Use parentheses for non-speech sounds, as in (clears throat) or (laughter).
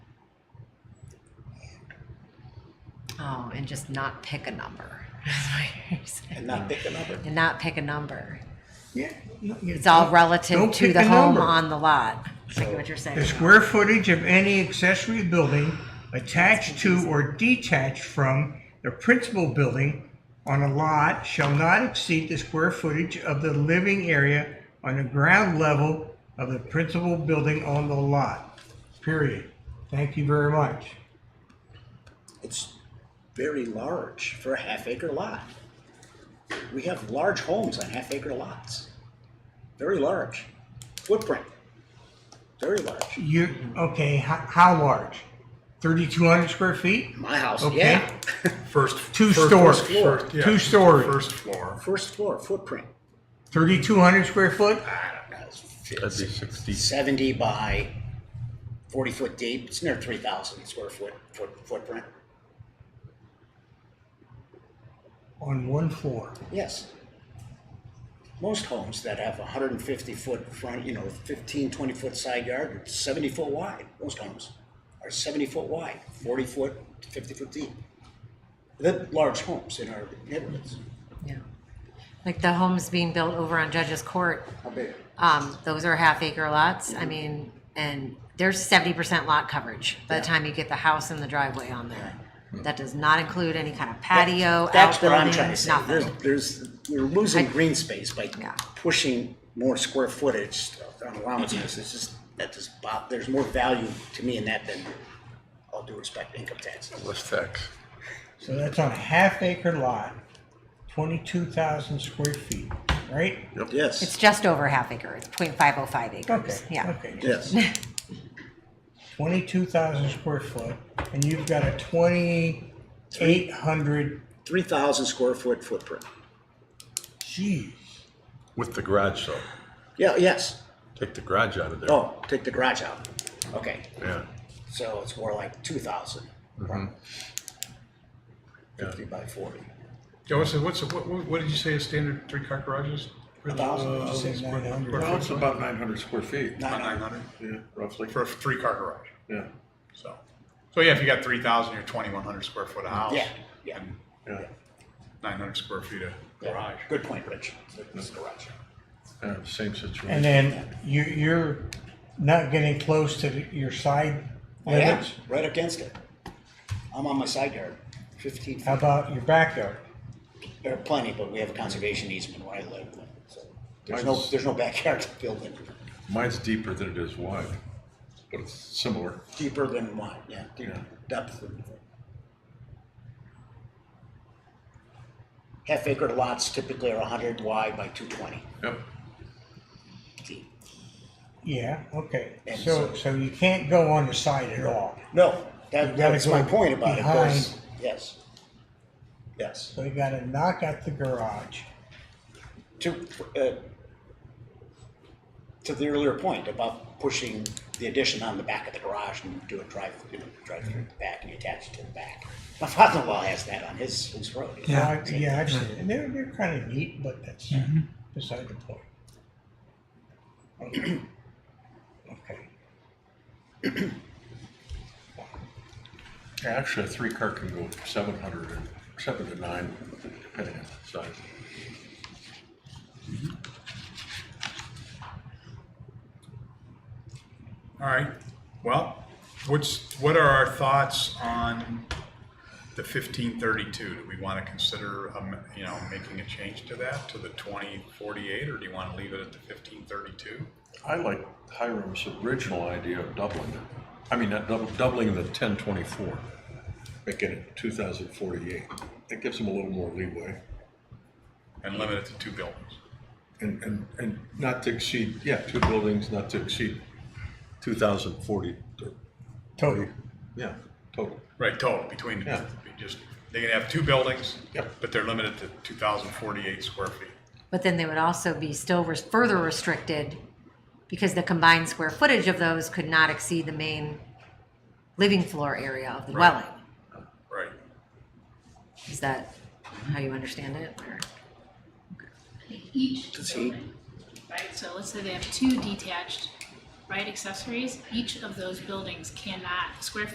um, and just not pick a number. (laughs) is what you're saying. and not pick a number. And not pick a number. Yeah. you- you- It's all don't- relative don't to pick the a home number. on the lot. Is So- what you're saying. The square footage of any accessory building attached to or detached from the principal building on a lot shall not exceed the square footage of the living area on the ground level of the principal building on the lot. Period. Thank you very much. It's very large for a half acre lot. We have large homes on half acre lots. Very large. Footprint. Very large. You, okay, how, how large? Thirty-two hundred square feet? My house, Okay. yeah. First, Two first- stories. first floor. yeah, Two stories. First floor. First floor, footprint. Thirty-two hundred square foot? That'd be sixty. 70 by 40 foot deep. It's near 3,000 square foot, foot footprint. On one floor. Yes. Most homes that have 150 foot front, you know, 15, 20 foot side yard, are 70 foot wide. Most homes are 70 foot wide, 40 foot, 50 foot deep. They're large homes in our neighborhoods. Yeah. Like the homes being built over on Judge's Court, How big? um, those are half acre lots. I mean, and there's seventy percent lot coverage by the time you get the house and the driveway on there. That does not include any kind of patio, That's what I'm trying to outbuildings, say. There's, nothing. there's, we're losing green space by Yeah. pushing more square footage on allowances. It's just, that just, bo- there's more value to me in that than, all due respect, income taxes. Less tax. So that's on a half acre lot, twenty-two thousand square feet, right? Yes. It's just over half acre. It's 0.505 Okay, acres. Yeah. okay. Yes. Twenty-two thousand square foot, and you've got a twenty-eight hundred, three thousand square foot footprint. geez. With the garage though. Yeah, yes. Take the garage out of there. Oh, take the garage out. Okay, Yeah. so it's more like two thousand. Mm-hmm. Fifty by forty. Yeah, what's, the- what's, the- what, what what did you say a standard three-car garage is? A thousand, did you say? Uh, Nine hundred. Well, it's about about nine hundred square feet. Nine nine hundred. hundred Yeah, roughly. for a three-car garage, Yeah. so. So yeah, if you got three thousand, you're twenty-one hundred square foot of house. Yeah, yeah. Yeah. Nine hundred square feet of Yeah. garage. Good point, Rich. It's a garage. Yeah, same situation. And then you, you're not getting close to the- your side I am, limits? Oh, right against it. I'm on my side yard, fifteen How feet. about your backyard? There are plenty, but we have a conservation easement where I live, so there's no, there's no backyard to build in. Mine's deeper than it is wide, but it's similar. Deeper than one, yeah, deep Yeah. depth. Half acre lots typically are hundred wide by two twenty Yep. deep. Yeah, okay, And so, so- so you can't go on the side at all. No, that, You gotta that's my go point about it, behind. there's, yes. Yes, So you gotta knock out the garage. to, uh, to the earlier point about pushing the addition on the back of the garage and do a drive, you know, drive through the back and attach it to the back. My father-in-law has that on his, his road. you know? Yeah, I- yeah, Mm-hmm. I've seen it. And they're, they're kind of neat, but that's beside the point. Okay. (clears throat) Okay. Yeah, Actually, a three-car can go seven hundred and seven to nine, depending on the size. All right, well, what's, what are our thoughts on the fifteen thirty-two? Do we want to consider, um, you know, making a change to that, to the twenty forty-eight, or do you want to leave it at the fifteen thirty-two? I like Hiram's original idea of doubling it. I mean, not doubling, doubling the ten twenty-four, making it two thousand forty-eight. That gives them a little more leeway And limit it to two buildings? and, and, and not to exceed, yeah, two buildings, not to exceed two thousand forty, Total. yeah, total. Right, total, between, the- Yeah. be just, they can have two buildings, Yep. but they're limited to two thousand forty-eight square feet. But then they would also be still res- further restricted because the combined square footage of those could not exceed the main living floor area of the Right. dwelling. Right. Is that how you understand it? or- each Does he- building, right? So let's say they have two detached, right, accessories, each of those buildings cannot, square